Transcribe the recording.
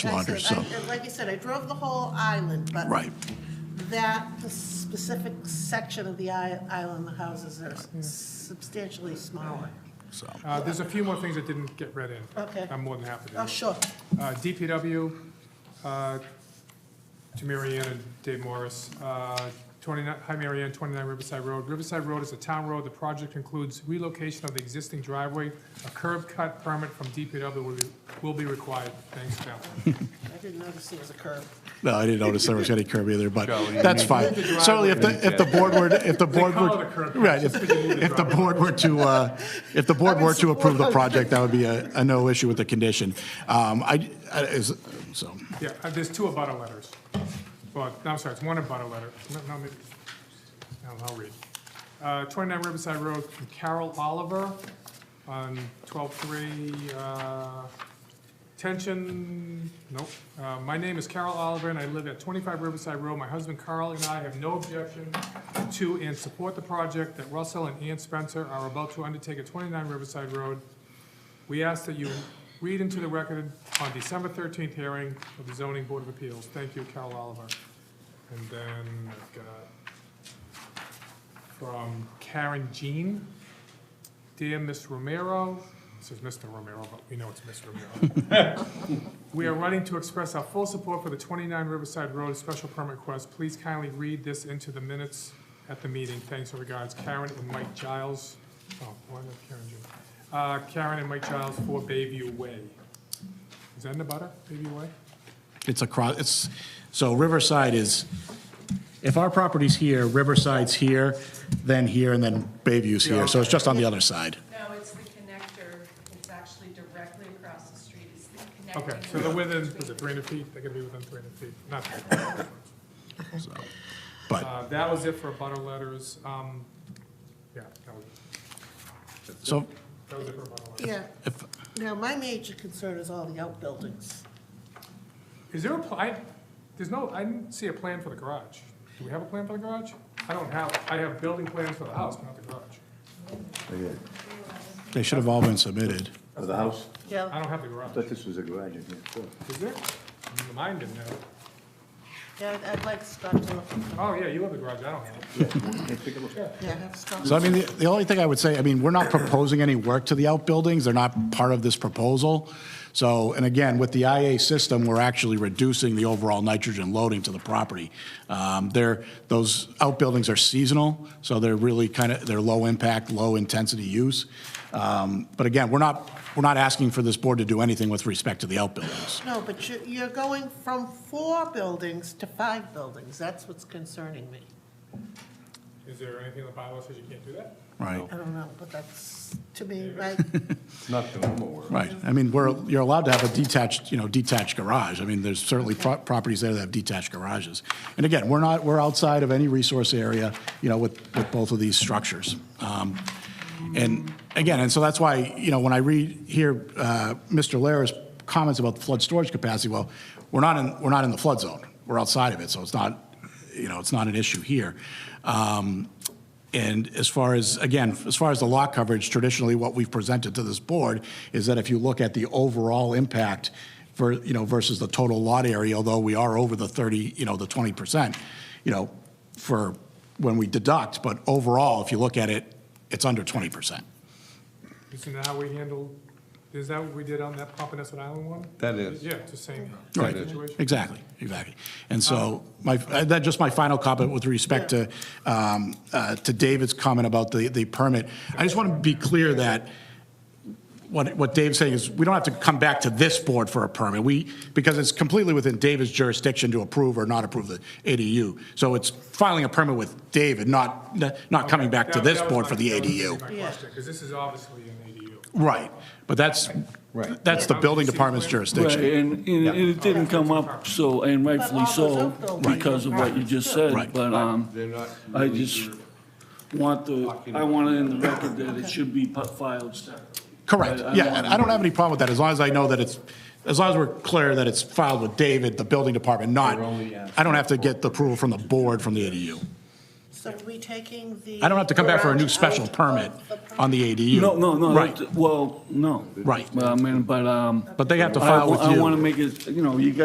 I launder, said- I- so, and Like you said, I drove the whole island, but. Right. That specific section of the i- island, the houses are substantially smaller. so, Uh, There's a few more things that didn't get read in. Okay. I'm more than happy to. do Oh, it. sure. Uh, DPW, uh, to Mary Ann and Dave Morris. Uh, 29, hi, Mary Ann, 29 Riverside Road. Riverside Road is a town road. The project includes relocation of the existing driveway. A curb cut permit from DPW will be- will be required. Thanks, Cal. I didn't notice there was a curb. no, I didn't notice there was any curb either, but that's fine. the driveway. Certainly, if the, if the board were, if the board call it were, a curb cut, right, if, just because you move the if the driveway. board were to, uh, if the board I'm in were to approve the support. project, that would be a, a no issue with the condition. Um, I, I- is, so, Yeah, uh, there's two abutter letters. Well, no, I'm sorry, it's one abutter letter. No, no, maybe, no, I'll read. Uh, 29 Riverside Road from Carol Oliver on 12-3, uh, tension, nope. Uh, My name is Carol Oliver, and I live at 25 Riverside Road. My husband Carl and I have no objection to and support the project that Russell and Ann Spencer are about to undertake at 29 Riverside Road. We ask that you read into the record on December 13th hearing of the zoning board of appeals. Thank you, Carol Oliver. And then I've got from Karen Jean. Dear Ms. Romero, this is Mr. Romero, but we know it's Ms. Romero. We are running to express our full support for the 29 Riverside Road special permit request. Please kindly read this into the minutes at the meeting. Thanks and regards, Karen and Mike Giles. Oh, why not Karen Jean? Uh, Karen and Mike Giles for Bayview Way. Is that in the butter, Bayview Way? it's across, it's, so Riverside is, if our property's here, Riverside's here, then here, and then Bayview's here, so it's just on the other side. No, it's the connector, it's actually directly across the street, it's the connecting. Okay, so they're road within, between- is it 300 feet? They're gonna be within 300 feet, not that. So, But, Uh, That was it for butter letters. Um, Yeah, that was, so, that was it for butter letters. Yeah. if, Now, my major concern is all the outbuildings. Is there a, pl- I, there's no, I didn't see a plan for the garage. Do we have a plan for the garage? I don't have, I have building plans for the house, but not the garage. Okay, they should have all been submitted. of the house? I Yeah, don't have the garage. Thought this was a garage in here, so. Is there? Mine didn't have it. yeah, I'd- I'd like Scott to look, Oh, yeah, you have the garage, I don't have it. Hey, take a look. yeah, have Scott. So I mean, the, the only thing I would say, I mean, we're not proposing any work to the outbuildings, they're not part of this proposal. So, and again, with the IA system, we're actually reducing the overall nitrogen loading to the property. Um, they're, those outbuildings are seasonal, so they're really kind of, they're low impact, low intensity use. Um, but again, we're not, we're not asking for this board to do anything with respect to the outbuildings. No, but you're, you're going from four buildings to five buildings. That's what's concerning me. Is there anything in the bylaw says you can't do that? Right, I don't know, but that's, to me, right? Not the normal work. right. I mean, we're, you're allowed to have a detached, you know, detached garage. I mean, there's certainly pro- properties there that have detached garages. And again, we're not, we're outside of any resource area, you know, with, with both of these structures. Um, And again, and so that's why, you know, when I read here, uh, Mr. Lara's comments about the flood storage capacity, well, we're not in, we're not in the flood zone. We're outside of it, so it's not, you know, it's not an issue here. Um, And as far as, again, as far as the lot coverage, traditionally, what we've presented to this board is that if you look at the overall impact for, you know, versus the total lot area, although we are over the 30, you know, the 20%, you know, for when we deduct, but overall, if you look at it, it's under 20%. Isn't that how we handled, is that what we did on that Pompanesett Island one? That is. Yeah, it's the same Right. situation. Exactly, exactly. And so my, uh, that, just my final comment with respect to, um, uh, to David's comment about the, the permit. I just want to be clear that what, what Dave's saying is we don't have to come back to this board for a permit. We, because it's completely within David's jurisdiction to approve or not approve the ADU. So it's filing a permit with David, not, not coming back to That- this that was board my- for the that was gonna be ADU. My question, because this is obviously an ADU. Right, but that's, Right. that's the building department's Right, jurisdiction. and, and and it didn't come up, so, and rightfully so, because of what you just Right. said, but, um, They're not I really just want the, I want it in the record that it should be pu- filed separately. Correct, I- I yeah, want- and I don't have any problem with that, as long as I know that it's, as long as we're clear that it's filed with David, the building department, not, They're only asking I don't have to get the approval from the board from the ADU. So are we taking the? I don't have to come back for a new garage special out of permit the on the ADU. No, no, no. Right, that- Well, no. Right. Well, I mean, but, um. but they have to I file with you. want to make it, you know, you got